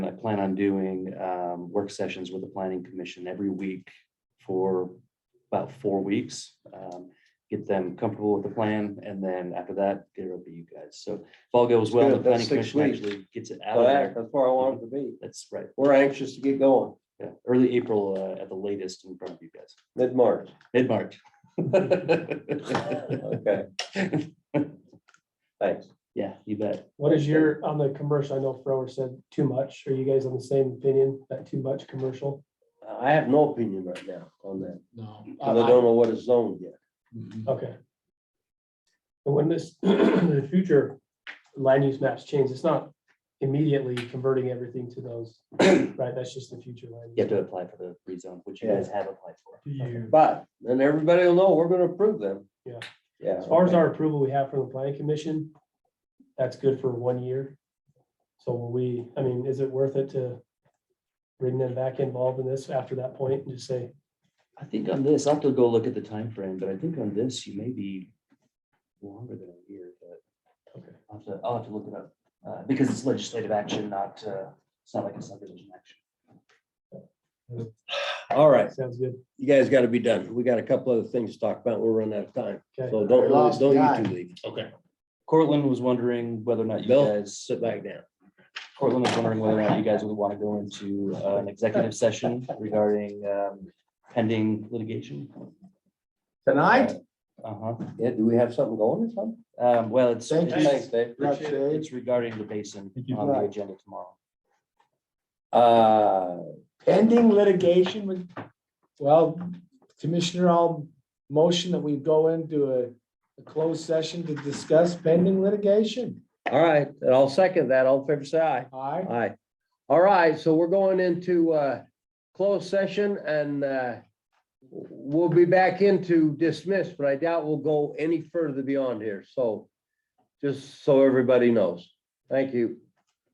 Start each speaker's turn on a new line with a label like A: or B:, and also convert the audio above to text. A: plan on doing um, work sessions with the planning commission every week for about four weeks. um, Get them comfortable with the plan, and then after that, get it over to you guys. So if all goes well, the
B: Good, that's
A: planning
B: six
A: commission
B: weeks.
A: actually gets it out
B: So
A: of
B: that-
A: there.
B: That's where I want it to be.
A: That's right.
B: We're anxious to get going,
A: Yeah, early April uh, at the latest in front of you guys,
B: mid-March.
A: mid-March.
B: Okay. Thanks.
A: Yeah, you bet.
C: What is your, on the commercial, I know Frower said too much. Are you guys on the same opinion, that too much commercial?
B: I have no opinion right now on that,
D: No.
B: 'cause I don't know what is zoned yet.
D: Mhm.
C: Okay. And when this, the future land use maps change, it's not immediately converting everything to those, right? That's just the future. land
A: You have to
C: use.
A: apply for the rezone, which you guys have applied for.
D: Do you,
B: But then everybody will know we're gonna approve them.
C: Yeah.
B: Yeah.
C: As far as
B: okay.
C: our approval we have from the planning commission, that's good for one year. So will we, I mean, is it worth it to bring them back involved in this after that point and just say,
A: I think on this, I'll have to go look at the time frame, but I think on this, you may be longer than a year, but
C: okay,
A: I'll have to, I'll have to look it up. Uh, because it's legislative action, not, uh, it's not like a subdivision action.
B: All right,
C: sounds good.
B: you guys gotta be done. We got a couple other things to talk about. We're running out of time.
C: Okay.
B: So don't,
E: Lost
B: don't
E: guy.
B: you two leave.
D: okay,
A: Cortland was wondering whether or not you
B: Bill?
A: guys,
B: Sit back down.
A: Cortland was wondering whether or not you guys would want to go into uh, an executive session regarding, um, pending litigation.
E: Tonight?
A: Uh-huh.
B: Yeah, do we have something going or something?
A: Um, well, it's,
E: Thank you.
A: it's
B: Thanks, Dave.
E: Appreciate it.
A: it's regarding the basin
D: Thank you.
A: on the agenda tomorrow.
B: Uh,
E: Pending litigation with, well, Commissioner, I'll motion that we go into a, a closed session to discuss pending litigation.
B: all right, and I'll second that. All in favor, say aye.
E: Aye.
B: Aye. All right, so we're going into uh closed session and uh we'll be back into dismiss, but I doubt we'll go any further beyond here. So just so everybody knows. Thank you.